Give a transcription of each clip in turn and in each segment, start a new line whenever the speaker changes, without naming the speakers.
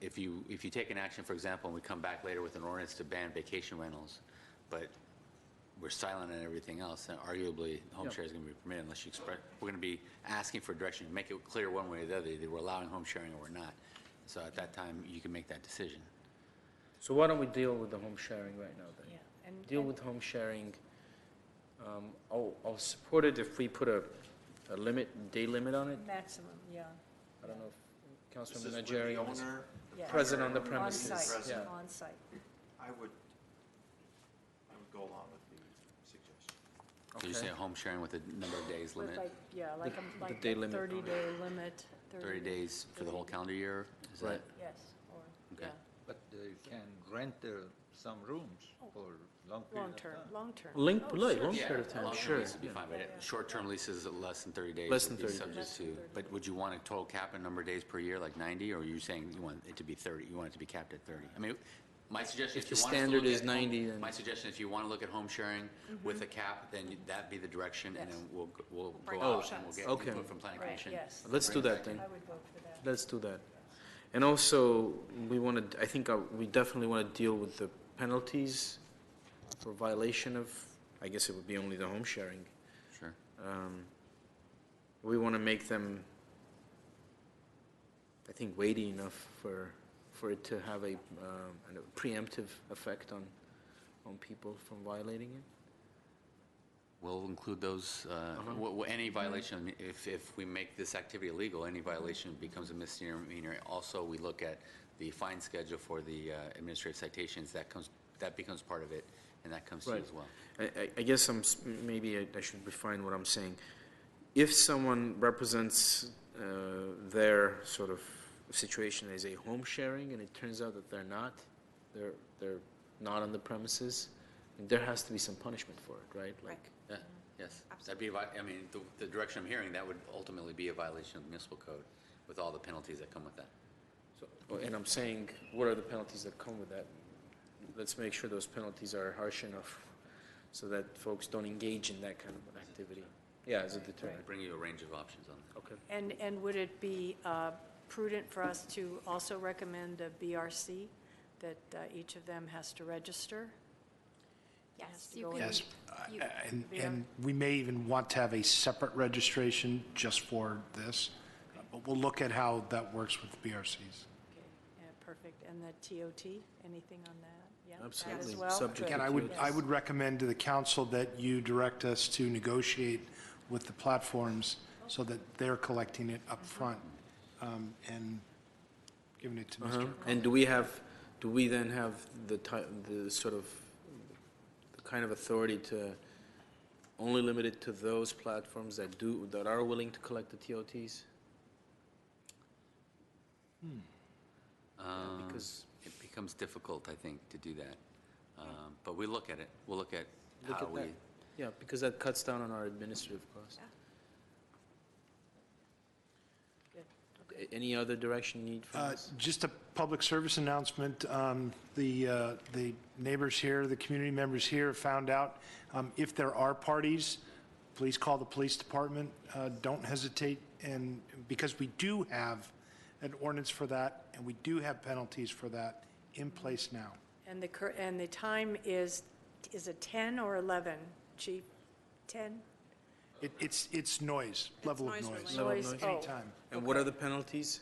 if you, if you take an action, for example, and we come back later with an ordinance to ban vacation rentals, but we're silent on everything else, then arguably, home
Yeah.
share is going to be permitted unless you express, we're going to be asking for direction, make it clear one way or the other, either we're allowing home sharing or we're not. So at that time, you can make that decision.
So why don't we deal with the home sharing right now then?
Yeah, and,
Deal
and-
with home sharing. Um, I'll, I'll support it if we put a, a limit, day limit on it.
maximum, yeah,
I don't know if
This
Councilman
is with
Najarian
the
is
owner, the
yeah.
present on the
proprietor,
on
premises.
site,
Present.
yeah.
on site.
I would, I would go along with the suggestion.
So you say
Okay.
home sharing with a number of days
With
limit,
like, yeah, like a, like
day
a
limit.
thirty-day limit.
30 days for the whole calendar year? Is
Right.
that-
Yes, or,
Okay.
yeah,
But they can rent uh, some rooms for long period of
long-term,
time.
long-term.
Ling-
Oh,
look,
sure,
long
sure.
period of time,
long-term
sure.
lease would be
Yeah.
fine,
Yeah,
but
yeah.
short-term leases at less than 30 days.
Less
would
than
be
30
subject
days. Less than
to-
30
But would you want a total cap in number of days per year, like 90, or are you saying you want it to be 30, you want it to be capped at 30? I mean, my suggestion,
If
if you
the
want us to
standard
look
is
at
90,
home-
then-
My suggestion, if you want to look at home sharing with a cap, then you- that'd be the direction, and
Mm-hmm. Yes.
then we'll, g- we'll
Bring
go out and we'll
options.
get
Okay.
input from planning
Right,
commission.
yes.
Let's
Bring
do
it
that
back in.
then.
I would vote for that.
Let's do that. And also, we want to, I think uh, we definitely want to deal with the penalties for violation of, I guess it would be only the home sharing.
Sure.
Um, We want to make them, I think, weighty enough for, for it to have a, um, a preemptive effect on, on people from violating it.
We'll include those, uh,
Uh-huh.
wh- wh- any violation, if, if we make this activity illegal, any
Mm-hmm.
violation becomes a misdemeanor. Also, we look at the fine schedule for the uh, administrative citations, that comes, that becomes part of it, and that comes to you
Right.
as well.
I, I, I guess I'm, s- maybe I, I should refine what I'm saying. If someone represents, uh, their sort of situation as a home sharing and it turns out that they're not, they're, they're not on the premises, there has to be some punishment for it, right? Like,
Yeah, yes. That'd be, a vi- I mean, the, the direction I'm hearing, that would ultimately be a violation of municipal code with all the penalties that come with that.
Well, And I'm saying, what are the penalties that come with that? Let's make sure those penalties are harsh enough so that folks don't engage in that kind of activity. Yeah, as a deterrent.
I'd Bring you a range of options on that.
Okay.
And, and would it be uh, prudent for us to also recommend a BRC, that uh, each of them has to register? Has
Yes,
to
you
go
can.
in.
Yes,
uh,
you-
and,
Yeah.
and we may even want to have a separate registration just for this, but we'll look at how that works with BRCs.
Okay, yeah, Perfect, and the TOT, anything on that? Yeah, that as
Absolutely.
well?
Subject
Good.
Again, I would, I would recommend to the council that you direct us to negotiate with the platforms so that they're collecting it up front um, and giving it to
Uh-huh.
Mr.
And do we have, do we then have the ti, the sort of, the kind of authority to only limit it to those platforms that do, that are willing to collect the TOTs?
Um,
because-
It becomes difficult, I think, to do that. Um, But we look at it, we'll look at
Look
how
at that.
we
Yeah, because that cuts down on our administrative cost.
Good.
A- Any other direction you need from
Uh,
us?
Just a public service announcement. Um, The, uh, the neighbors here, the community members here found out um, if there are parties, please call the police department. Uh, Don't hesitate. And because we do have an ordinance for that and we do have penalties for that in place now.
And the, cur- and the time is, is it 10 or 11, Chief? 10?
It- It's, it's noise, level of
noise
noise.
related.
Level of
Noise-
noise.
oh,
Anytime.
And what are the penalties?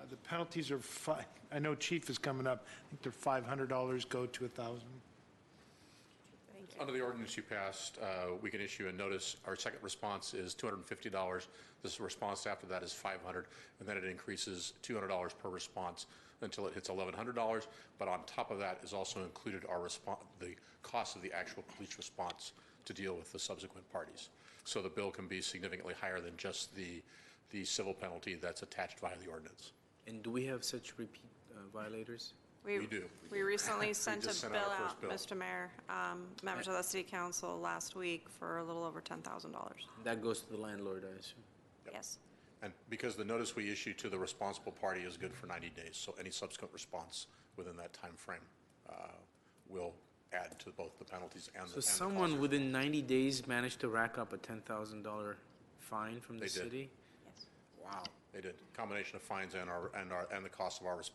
Uh, The penalties are fi, I know Chief is coming up. I think they're $500 go to 1000
thank you.
Under the ordinance you passed, uh, we can issue a notice. Our second response is $250. This response after that is 500, and then it increases $200 per response until it hits $1,100. But on top of that is also included our response, the cost of the actual police response to deal with the subsequent parties. So the bill can be significantly higher than just the, the civil penalty that's attached via the ordinance.
And do we have such repeat uh, violators?
We do.
We recently sent
just
a
sent
bill
out our
out,
first
Mr.
bill.
Mayor, um, members of the city council last week for a little over $10,000.
That goes to the landlord, I assume.
Yes.
And because the notice we issue to the responsible party is good for 90 days, so any subsequent response within that timeframe uh, will add to both the penalties and
So
the and the cost.
someone within 90 days managed to rack up a $10,000 fine from the
They did.
city?
Yes.
Wow.
They did, combination of fines and our, and our, and the cost of our response